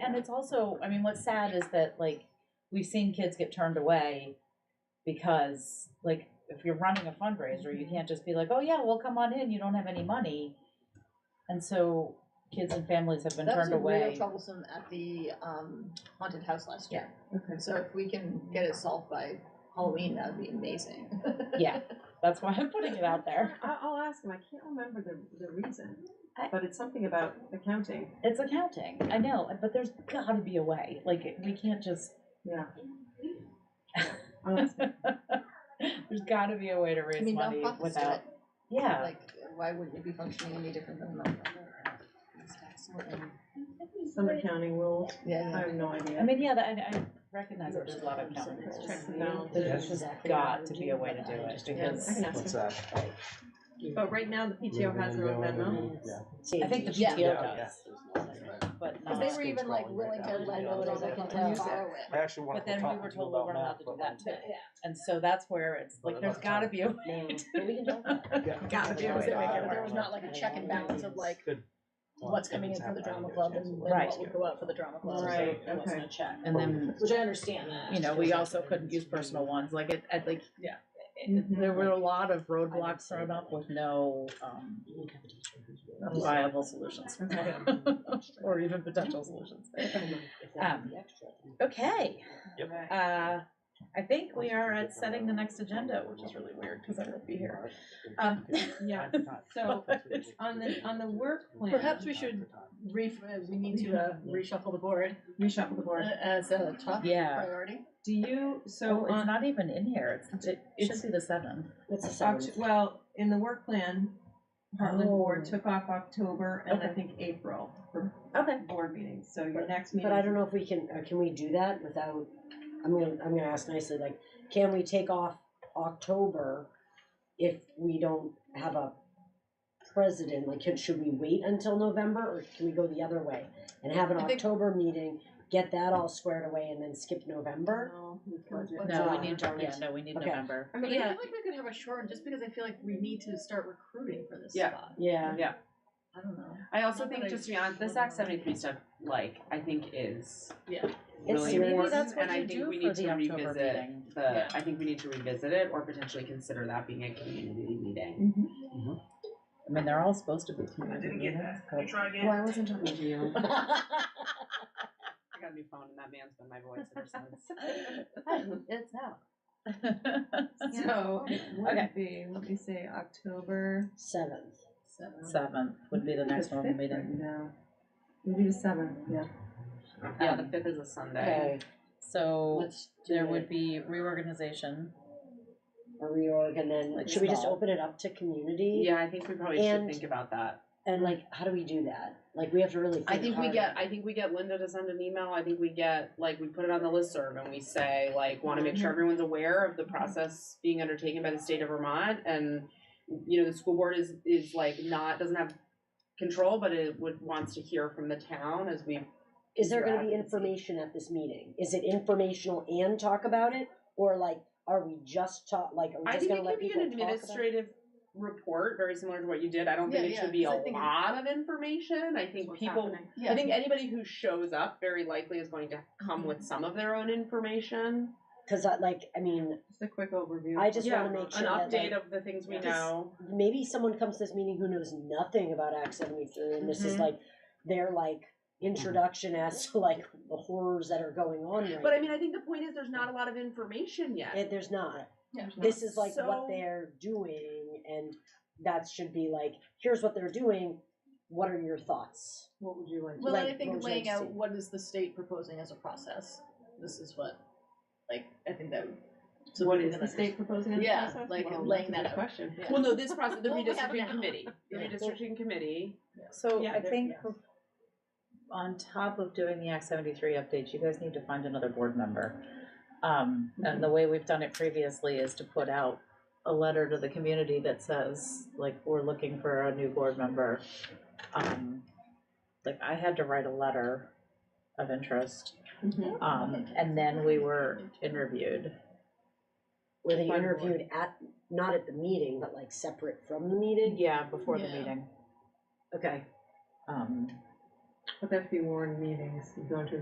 and it's also, I mean, what's sad is that like we've seen kids get turned away because like if you're running a fundraiser, Mm-hmm. you can't just be like, oh yeah, well come on in, you don't have any money, and so kids and families have been That was turned away. real troublesome at the um, haunted house last year. Okay. So if we can get it solved by Halloween, that'd be amazing. yeah, that's why I'm putting it out there. I, I'll ask him. I can't remember the, the reason, I- but it's something about accounting. It's accounting, I know, but there's got to be a way. Like we can't just Yeah. I'll ask him. there's got to be a way to raise I mean, money nonprofits do without it. yeah. Like, why wouldn't it be functioning any different than nonprofit? Some accounting rules. I Yeah. have no idea. I mean, yeah, that, I, I recognize that there's a lot of accounting Let's rules. check the balance. There's just got to be a way to do it I because can ask What's him. that? But right now, the PTO has their own Venmo. I think the Yeah. PTO Yeah. does, but Because not. they were even like willing to let know that I can tell. borrow it. I actually want But to then we were talk to you told we about weren't allowed that. to do but that Yeah. today, and so that's where it's like What there's about got to time? be a No, way. but we can talk about it. Yeah. Got to be a way. to make it There work. was not like a check and balance of like Good. what's coming in for the drama club and and Right. what would go out for the drama club. Right, There wasn't okay. a check. And then Which I understand that. you know we also couldn't use personal ones. Like it, at like yeah, Mhm. there were a lot of roadblocks thrown up with no um, viable solutions Okay. or even potential solutions. Um, Well, Okay. Yep. Uh, I think we are at setting the next agenda, which is really weird because I won't be here. Um, Yeah. So on the on the work plan, Perhaps we should re, uh, we need to uh, reshuffle the board reshuffle the uh, board. as a top Yeah. priority. Do you So so oh, it's on not even in here. It's, it should It's- be the seventh. It's a seven. Oct- well in the work plan, Heartland Oh. Board took off October and I Okay. think April for Okay. board meetings. So your next meeting. But I don't know if we can, or can we do that without, I'm gonna, I'm gonna ask nicely, like, can we take off October if we don't have a president? Like, can- should we wait until November or can we go the other way? And have an I think- October meeting, get that all squared away and then skip November? No, we can't do No, that. No, we Uh, need, darn yeah, it. no, we need Okay. November. I But mean, I yeah, feel like we could have a shortened just because I feel like we need to start recruiting for this Yeah. spot. Yeah. I don't know. I also Not that I think, just to be honest, this Act seventy-three stuff, like, I think is Yeah. It's really maybe important, that's what and I you do think for we need the to October revisit meeting. Yeah. the, I think we need to revisit it or potentially consider that being a community meeting. mhm. I mean, they're all supposed to be community meetings, but Why wasn't talking to you? I got a new phone and that man's been my voice ever since. it's out. So it Okay. would be, let me say, October Seventh. Seven. Seventh would be the next the normal fifth right meeting. now. Maybe the seventh, yeah. Yeah, the fifth is a Sunday. Okay, So let's do there it. would be reorganization. a reorg and then, Like should we just small. open it up to community? Yeah, I think we probably should And- think about that. And like, how do we do that? Like, we have to really think I think we hard. get, I think we get Linda to send an email, I think we get, like, we put it on the listserv and we say, like, wanna make sure everyone's aware of the process being undertaken by the state of Vermont and, you know, the school board is, is like not, doesn't have control, but it would, wants to hear from the town as we, Is there gonna be Interagency. information at this meeting? Is it informational and talk about it? Or like, are we just talk, like, are we I just think gonna it let could be people an talk about it? administrative report, very similar to what you did, I don't think Yeah, it should yeah, be a 'cause I think- lot of information, I think What's people happening. Yeah. I think anybody who shows up very likely is going to come with some of their own information. Cause I, like, I mean, Just a quick overview. I just wanna make sure that an update like, of the things we Yeah. know. maybe someone comes to this meeting who knows nothing about Act seventy-three and this is Mhm. like, their like introduction as to like the horrors that are going on right now. But I mean, I think the point is there's not a lot of information yet. It- There's not. Yeah. this is like So- what they're doing and that should be like here's what they're doing what are your thoughts What would you like? to Well, and I like, think most laying out interesting. what is the state proposing as a process. This is what, like, I think that. would- So we what can is the then- state proposing in the Yeah, process? like, Well, laying that's a that good out. Question. Yeah. well, no, this process, the What we have redistricting now. committee, the Yeah. redistricting committee. So Yeah, I there- think yes. for- on top of doing the Act seventy-three updates, you guys need to find another board member. Um, and the way we've done it previously is to put out a letter to the community that says, like, we're looking for a new board member. Um, like, I had to write a letter of interest, Mhm. um, and then we were interviewed. were they By the interviewed at not at the meeting but like separate from the meeting Yeah, before the Yeah. meeting, okay um. But that could be warned meetings, you go into